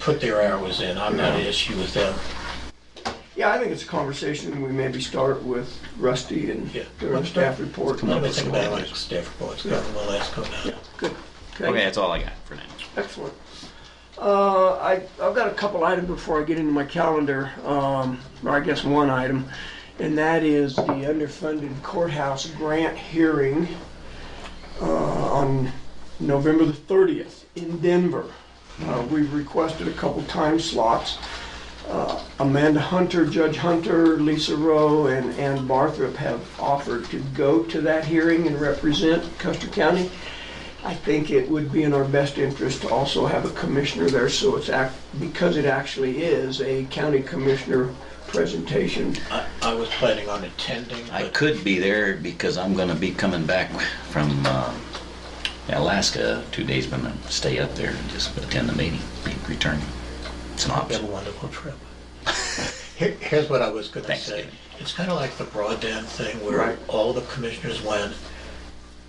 put their hours in. I'm not an issue with them. Yeah, I think it's a conversation we maybe start with Rusty and Yeah. during the staff report. Let me think about it, staff reports, well, that's coming out. Good. Okay, that's all I got for now. Excellent. Uh, I, I've got a couple items before I get into my calendar, um, or I guess one item, and that is the underfunded courthouse grant hearing uh, on November the 30th in Denver. Uh, We've requested a couple time slots. Uh, Amanda Hunter, Judge Hunter, Lisa Rowe, and Ann Barthrop have offered to go to that hearing and represent Custer County. I think it would be in our best interest to also have a commissioner there, so it's act, because it actually is a county commissioner presentation. I, I was planning on attending, I but could be there because I'm gonna be coming back from uh, Alaska two days, but I'm gonna stay up there and just attend the meeting and return. It's an we have a option. wonderful trip. Here, here's what I was gonna Thanks, say. Steve. It's kinda like the broadband thing where Right. all the commissioners went.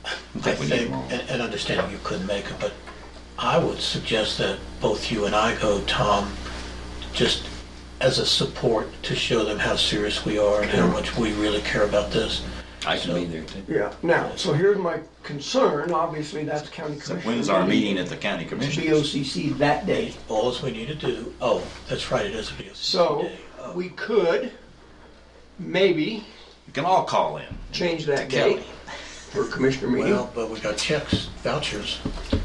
I think we need think, more. and, and understanding you couldn't make it, but I would suggest that both you and I go, Tom, just as a support to show them how serious we are and how much we really care about this. I can be there too. Yeah, now, so here's my concern, obviously, that's county So commissioner. when's our meeting at the county commission? BOCC that day. All we need to do, oh, that's right, it is a BOCC So, day. Oh. we could maybe You can all call in. change that Kelly. date for commissioner meeting. Well, but we got checks, vouchers.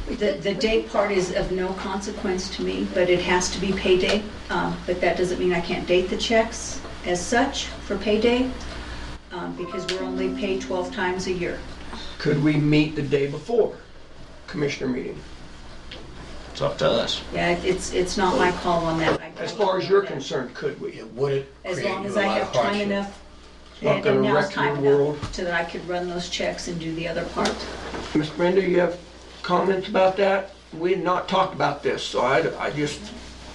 The, the day part is of no consequence to me, but it has to be payday. Um, But that doesn't mean I can't date the checks as such for payday, um, because we're only paid 12 times a year. Could we meet the day before commissioner meeting? It's up to us. Yeah, it- it's, it's not my call on that. I- As far as you're concerned, could we? It would As create long you as a I lot of have time hardship. enough, not and gonna and now's wreck your time world. enough, so that I could run those checks and do the other part. Ms. Brenda, you have comments about that? We had not talked about this, so I, I just,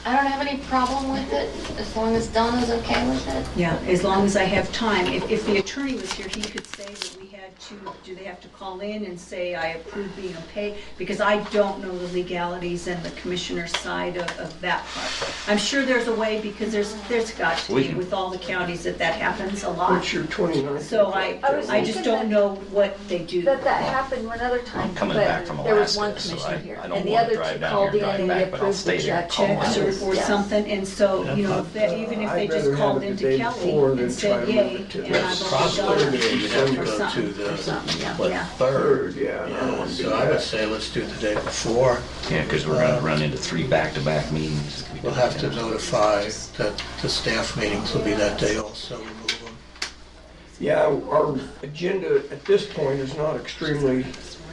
I don't have any problem with it, as long as Donna's okay with it. Yeah, as long as I have time. If, if the attorney was here, he could say that we had to, do they have to call in and say, I approve being paid? Because I don't know the legalities and the commissioner's side of, of that part. I'm sure there's a way, because there's, there's got to We be can- with all the counties that that happens a what's lot. your 29th? So I, I was I just thinking don't that- know what they do. That that happened one other time, I'm but coming back from there was Alaska, one so commissioner I- here, I don't and the wanna other drive two down called here in and and drive they back, but I'll approved stay the there and check. call check. in. Or, or Yes. something, and so, you know, that even if uh, I'd they rather just have called it the into day before Kelly than and try said, to yay, move it to and next I've only Probably done you have to or go to something, or something, the, yeah, what, yeah. third? Third, yeah, I don't Yeah, wanna do so I would that. say let's do it the day before. Yeah, because we're gonna run into three back-to-back meetings. It's gonna be We'll have to difficult. notify that the staff meetings will be that day also, remove them. Yeah, our agenda at this point is not extremely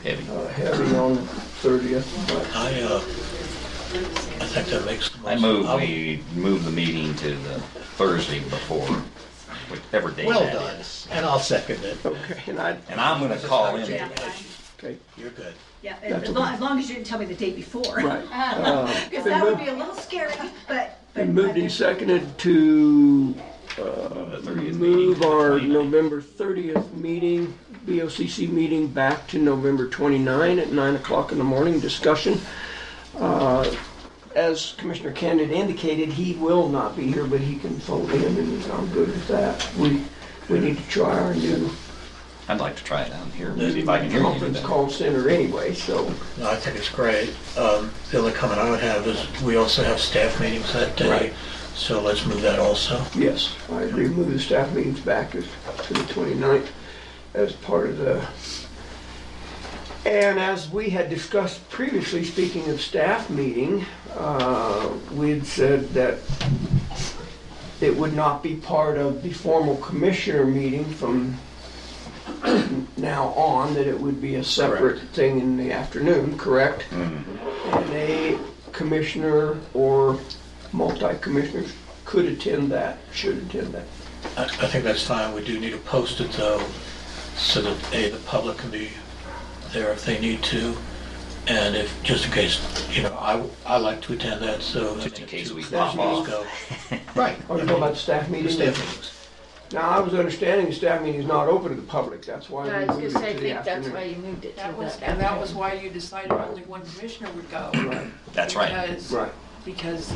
Heavy. uh, heavy on the 30th, but I, uh, I think that makes the most. I move, I'll- we move the meeting to the Thursday before, whichever day Well that done, is. and I'll second it. okay, and I, And I'm gonna call in. Yeah, okay, You're good. yeah, as long, as long as you didn't tell me the day before. right. Uh, Because that would be a little scary, but. but Been moved I- and seconded to the 30th meeting to move the our 29th. November 30th meeting, BOCC meeting, back to November 29 at 9 o'clock in the morning, discussion. Uh, As Commissioner Candid indicated, he will not be here, but he can fold in, and I'm good with that. We, we need to try our new I'd like to try it out here, maybe if I can hear you. conference call center anyway, so. No, I think it's great. Um, The only comment I would have is, we also have staff meetings that day, Right. so let's move that also. Yes, I agree. Move the staff meetings back as- to the 29th as part of the... And as we had discussed previously, speaking of staff meeting, uh, we had said that it would not be part of the formal commissioner meeting from now on, that it would be a separate thing in the afternoon, correct? And a commissioner or multi-commissioners could attend that, should attend that. I I think that's fine. We do need to post it though, so that A, the public can be there if they need to, and if, just in case, you know, I, I like to attend that, so. Just in case we Staff pop meetings off. go. Right. Are you talking about the staff meeting? Staff meetings. Now, I was understanding the staff meeting is not open to the public, that's why Yeah, I we was gonna moved say, I it to the think that's why afternoon. you moved it to That was, the and that was afternoon. why you decided only one commissioner would go. Right, That's right. Because, Right. because